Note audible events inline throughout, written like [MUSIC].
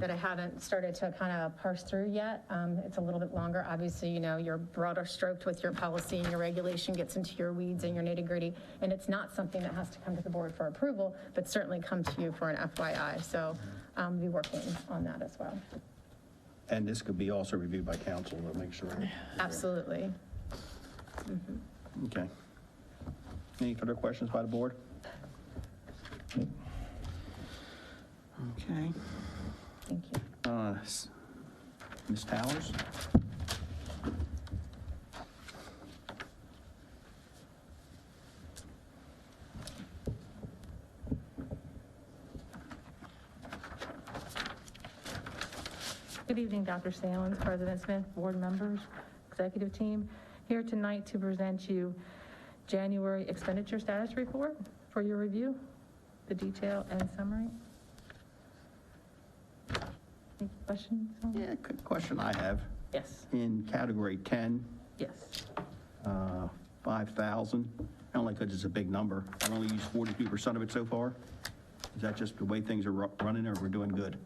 that I haven't started to kind of parse through yet. Um, It's a little bit longer. Obviously, you know, you're broader stroked with your policy and your regulation gets into your weeds and your nitty gritty. And it's not something that has to come to the board for approval, but certainly come to you for an FYI. So um, we'll be working on that as well. And this could be also reviewed by council to make sure. Absolutely. Okay. Any further questions by the board? Okay. Thank you. Uh, s- Ms. Towers? Good evening, Dr. Salins, President Smith, board members, executive team, here tonight to present you January expenditure status report for your review, the detail and summary. Any questions? Yeah, good question I have. Yes, In category 10, yes. uh, 5,000, only because it's a big number, I've only used 42% of it so far. Is that just the way things are ru- running, or we're doing good?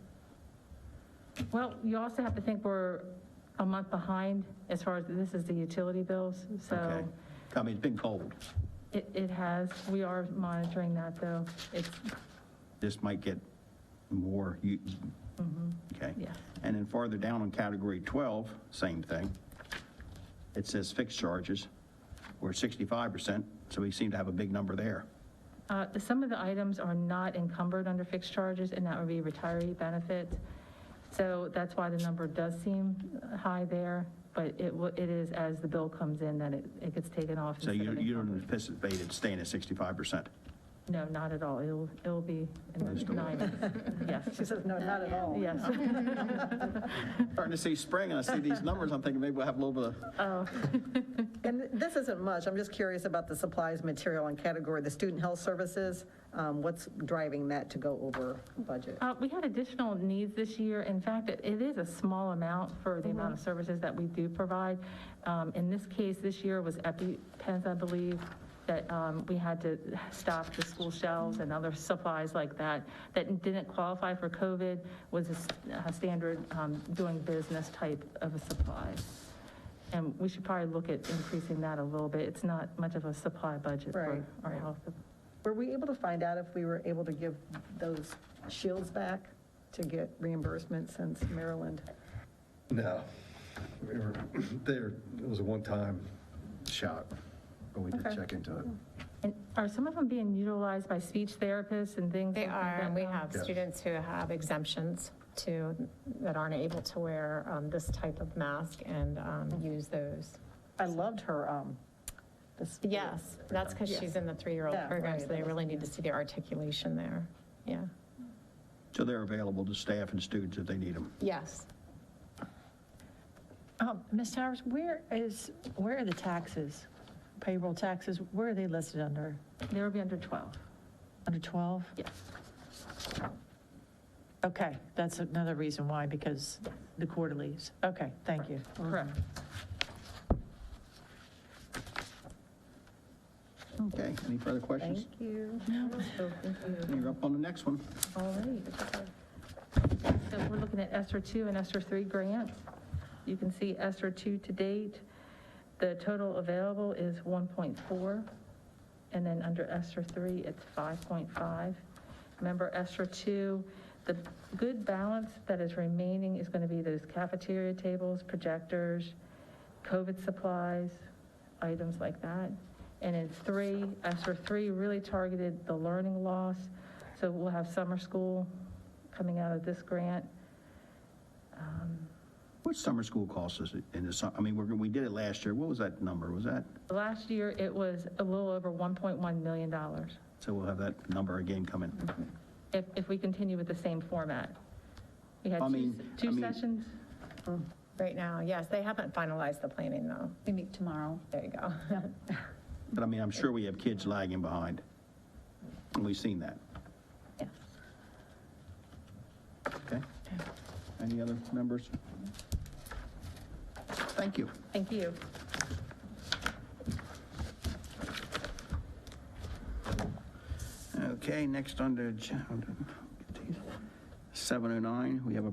Well, you also have to think we're a month behind as far as, this is the utility bills, Okay. so I mean, it's been cold. it, it has, we are monitoring that, though. It's, This might get more, u- okay? Mm-hmm. yeah. And then farther down on category 12, same thing. It says fixed charges, we're 65%, so we seem to have a big number there. Uh, Some of the items are not encumbered under fixed charges, and that would be retiree benefits. So that's why the number does seem high there, but it wa- it is as the bill comes in that it it gets taken off. So instead you of you don't encumbered. anticipate it staying at [LAUGHS] 65%? No, not at all. It'll it'll be in Just the a little. nine. Yes, She says, no, not at all. yes. Starting to see spring, and I see these numbers, I'm thinking maybe we'll have a little bit of, Oh, And this isn't much, I'm just curious about the supplies, material, and category, the student health services, um, what's driving that to go over budget? uh, We had additional needs this year. In fact, it it is a small amount for the amount of services that we do provide. Um, In this case, this year was EpiPens, I believe, that um, we had to stop the school shelves and other supplies like that, that didn't qualify for COVID, was a s- a standard um, doing business type of a supply. And we should probably look at increasing that a little bit. It's not much of a supply budget Right. for our health Were we able to find out if we were able to give those shields back to get reimbursement since Maryland? No. We were, there, it was a one-time shot, but we did Okay. check into it. And are some of them being utilized by speech therapists and things? They like that are, and we now? have Yeah. students who have exemptions to, that aren't able to wear um, this type of mask and um, use those. I loved her, um, this. Yes, that's because she's in the three-year-old Yeah, program, right, so they that really is- need to see the articulation there. Yeah, so they're available to staff and students if they need them. yes. Um, Ms. Towers, where is, where are the taxes, payroll taxes, where are they listed under? They would be under 12. Under 12? Yes. Okay, that's another reason why, because the quarterlies. Okay, thank you. Correct. Oh. Okay, any further questions? Thank you. You're up on the next one. All right. So we're looking at ESER 2 and ESER 3 grants. You can see ESER 2 to date, the total available is 1.4, and then under ESER 3, it's 5.5. Remember, ESER 2, the good balance that is remaining is going to be those cafeteria tables, projectors, COVID supplies, items like that. And in three, ESER three really targeted the learning loss. So we'll have summer school coming out of this grant. What summer school costs us in the, su- I mean, we're gonna- we did it last year, what was that number, was that? Last year, it was a little over $1.1 million So we'll have that number again coming. if, if we continue with the same format. We had I two, mean- I two mean- sessions. Right now, yes, they haven't finalized the planning, though. We meet tomorrow. There you go. [LAUGHS] But I mean, I'm sure we have kids lagging behind, and we've seen that. Yes. Okay. Any other members? Thank you. Thank you. Okay, next on the, ag- 709, we have a